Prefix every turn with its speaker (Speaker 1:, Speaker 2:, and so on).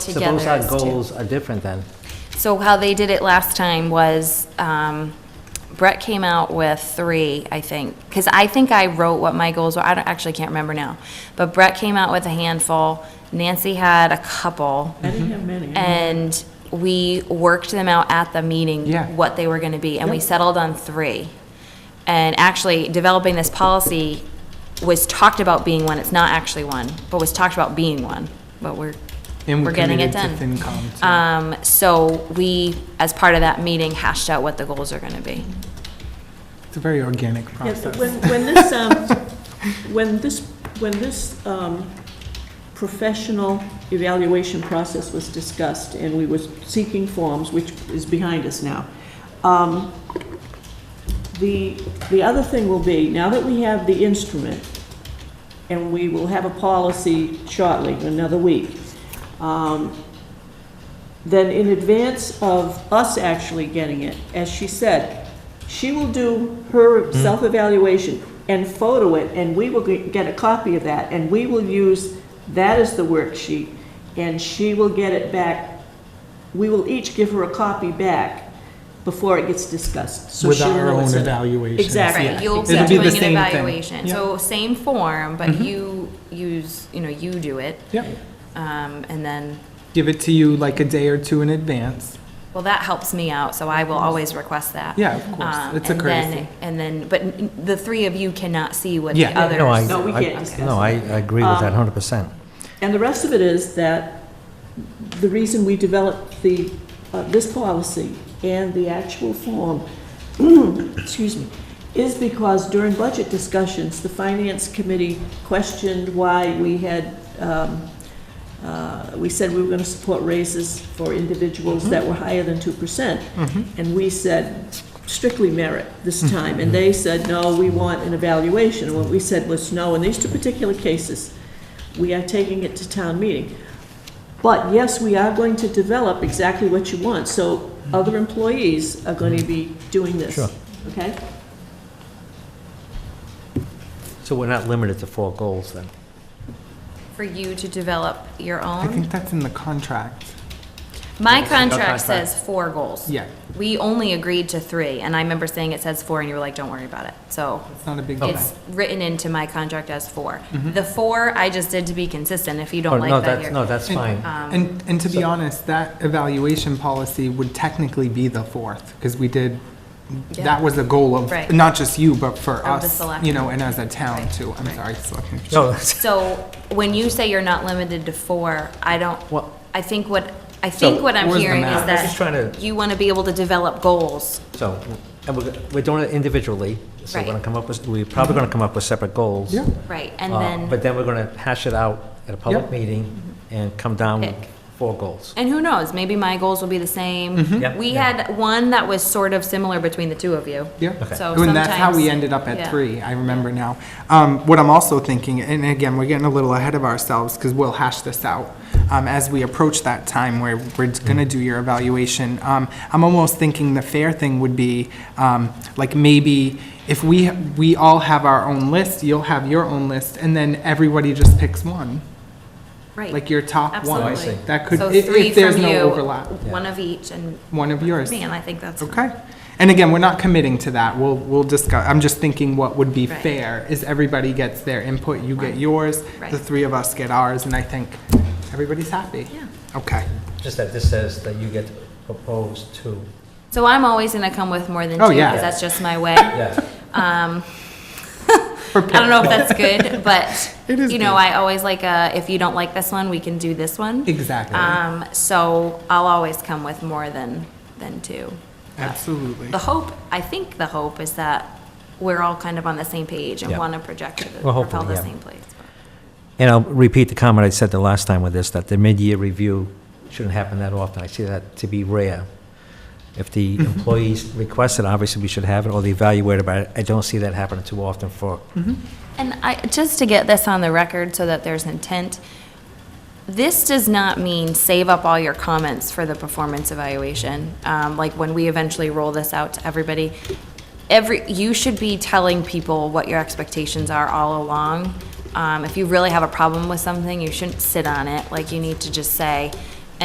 Speaker 1: So
Speaker 2: together
Speaker 1: both our
Speaker 2: as to-
Speaker 1: goals are different then?
Speaker 2: So how they did it last time was, um, Brett came out with three, I think, because I think I wrote what my goals were, I don't, actually can't remember now. But Brett came out with a handful, Nancy had a couple. I didn't have many. And we worked them out at the meeting.
Speaker 3: Yeah.
Speaker 2: What they were gonna be, and we settled on three. And actually, developing this policy was talked about being one, it's not actually one, but was talked about being one, but we're,
Speaker 3: And
Speaker 2: we're
Speaker 3: we're
Speaker 2: getting it
Speaker 3: committed
Speaker 2: done.
Speaker 3: to FinCom. too.
Speaker 2: Um, so we, as part of that meeting, hashed out what the goals are gonna be.
Speaker 3: It's a very organic
Speaker 4: Yeah,
Speaker 3: process.
Speaker 4: When, when this, um, when this, when this, um, professional evaluation process was discussed and we were seeking forms, which is behind us now, um, the, the other thing will be, now that we have the instrument, and we will have a policy shortly, another week, um, then in advance of us actually getting it, as she said, she will do her
Speaker 3: Mm-hmm.
Speaker 4: self-evaluation and photo it, and we will ge- get a copy of that, and we will use that as the worksheet, and she will get it back, we will each give her a copy back before it gets discussed. so
Speaker 3: With
Speaker 4: she'll
Speaker 3: our
Speaker 4: know
Speaker 3: own
Speaker 4: it's in it.
Speaker 3: evaluation.
Speaker 4: Exactly.
Speaker 2: Right, you'll be
Speaker 3: It'll be the
Speaker 2: doing an
Speaker 3: same thing.
Speaker 2: evaluation,
Speaker 3: Yeah. Mm-hmm.
Speaker 2: so same form, but you use, you know, you do it.
Speaker 3: Yep.
Speaker 2: Um, and then,
Speaker 3: Give it to you like a day or two in advance.
Speaker 2: well, that helps me out, so I will always request that.
Speaker 3: Yeah, of course.
Speaker 2: Um,
Speaker 3: It's a
Speaker 2: and then-
Speaker 3: courtesy.
Speaker 2: And then, but n- the three of you cannot see what the
Speaker 3: Yeah.
Speaker 2: others.
Speaker 1: No, I-
Speaker 4: No, we
Speaker 1: I-
Speaker 4: can't discuss
Speaker 1: No, I, I agree with
Speaker 2: Um,
Speaker 1: that 100%.
Speaker 4: And the rest of it is that the reason we developed the, uh, this policy and the actual form, excuse me, is because during budget discussions, the finance committee questioned why we had, um, uh, we said we were going to support raises for individuals that were higher than 2%. And we said strictly merit this time. And they said, no, we want an evaluation. And what we said was, no, in these two particular cases, we are taking it to town meeting. But yes, we are going to develop exactly what you want, so other employees are going to be doing this.
Speaker 1: Sure.
Speaker 4: Okay?
Speaker 1: So we're not limited to four goals then?
Speaker 2: For you to develop your
Speaker 3: I
Speaker 2: own.
Speaker 3: think that's in the contract.
Speaker 2: My
Speaker 1: contract.
Speaker 2: contract says four goals.
Speaker 3: Yeah.
Speaker 2: We only agreed to three, and I remember saying it says four, and you were like, don't worry about it, so.
Speaker 3: It's not a big deal.
Speaker 2: It's written into my contract as four. The four I just did to be consistent, if you
Speaker 1: Mm-hmm. Oh,
Speaker 2: don't
Speaker 1: no,
Speaker 2: like that um,
Speaker 1: that's- No,
Speaker 2: here.
Speaker 1: that's fine.
Speaker 3: And, and to be honest, that evaluation policy would technically be the fourth, because we did,
Speaker 2: Yeah.
Speaker 3: that was the goal
Speaker 2: Right.
Speaker 3: of, not just you, but for
Speaker 2: Of the
Speaker 3: us, you
Speaker 2: selectmen.
Speaker 3: know, and as a town
Speaker 2: Right.
Speaker 3: too. I'm sorry, selectmen.
Speaker 1: No,
Speaker 2: So when you say you're not limited to four, I don't,
Speaker 1: Well-
Speaker 2: I think what, I
Speaker 1: So-
Speaker 2: think what I'm
Speaker 3: Where's the
Speaker 2: hearing is
Speaker 3: math? I'm
Speaker 1: just trying
Speaker 2: that
Speaker 1: to-
Speaker 2: you want to be able to develop goals.
Speaker 1: So, and we're, we're doing it individually, so we're
Speaker 2: Right.
Speaker 1: gonna come up with, we're probably gonna come up with separate goals.
Speaker 3: Yeah.
Speaker 2: Right, and
Speaker 1: Uh, But
Speaker 2: then, Mm-hmm.
Speaker 1: then we're gonna hash it out at a public
Speaker 3: Yep.
Speaker 1: meeting and come down with
Speaker 2: Pick.
Speaker 1: four goals.
Speaker 2: and who knows, maybe my goals will be the same. We
Speaker 1: Yep. Mm-hmm. Yeah.
Speaker 2: had one that was sort of similar between the two of you.
Speaker 3: Yeah.
Speaker 1: Okay.
Speaker 2: So
Speaker 3: And that's how we
Speaker 2: sometimes-
Speaker 3: ended up
Speaker 2: yeah.
Speaker 3: at three, I remember now. Um, what I'm also thinking, and again, we're getting a little ahead of ourselves because we'll hash this out um, as we approach that time where we're going
Speaker 1: Mm.
Speaker 3: to do your evaluation. Um, I'm almost thinking the fair thing would be um, like maybe if we, we all have our own list, you'll have your own list, and then everybody just picks one,
Speaker 2: Right.
Speaker 3: like your top one.
Speaker 2: Absolutely.
Speaker 1: Oh, I see.
Speaker 3: That could,
Speaker 2: So
Speaker 3: if-
Speaker 2: three
Speaker 3: if there's
Speaker 2: from
Speaker 3: no
Speaker 2: you,
Speaker 3: overlap,
Speaker 2: One of each, and,
Speaker 3: one of yours.
Speaker 2: man, I think that's.
Speaker 3: Okay. And again, we're not committing to that. We'll, we'll discuss, I'm just thinking what would be
Speaker 2: Right.
Speaker 3: fair is everybody gets their input, you get yours,
Speaker 2: Right.
Speaker 3: the three of us get ours, and I think everybody's happy.
Speaker 2: Yeah.
Speaker 3: Okay.
Speaker 1: Just that this says that you get to propose two.
Speaker 2: So I'm always gonna come with more than two,
Speaker 3: Oh, yeah.
Speaker 2: because that's just my way.
Speaker 1: Yeah,
Speaker 2: Um, I don't know if that's good, but,
Speaker 3: It is
Speaker 2: you know,
Speaker 3: good.
Speaker 2: I always like a, if you don't like this one, we can do this one.
Speaker 3: Exactly.
Speaker 2: Um, so I'll always come with more than, than two.
Speaker 3: Absolutely.
Speaker 2: The hope, I think the hope is that we're all kind of on the same page and
Speaker 1: Yeah.
Speaker 2: wanna project to the-
Speaker 1: Well,
Speaker 2: propel
Speaker 1: hopefully,
Speaker 2: the
Speaker 1: yeah.
Speaker 2: same place.
Speaker 1: and I'll repeat the comment I said the last time with this, that the mid-year review shouldn't happen that often. I see that to be rare. If the employees request it, obviously we should have it, or the evaluator, but I don't see that happening too often for
Speaker 2: And I, just to get this on the record so that there's intent, this does not mean save up all your comments for the performance evaluation. Um, like when we eventually roll this out to everybody, every, you should be telling people what your expectations are all along. Um, if you really have a problem with something, you shouldn't sit on it. Like you need to just say,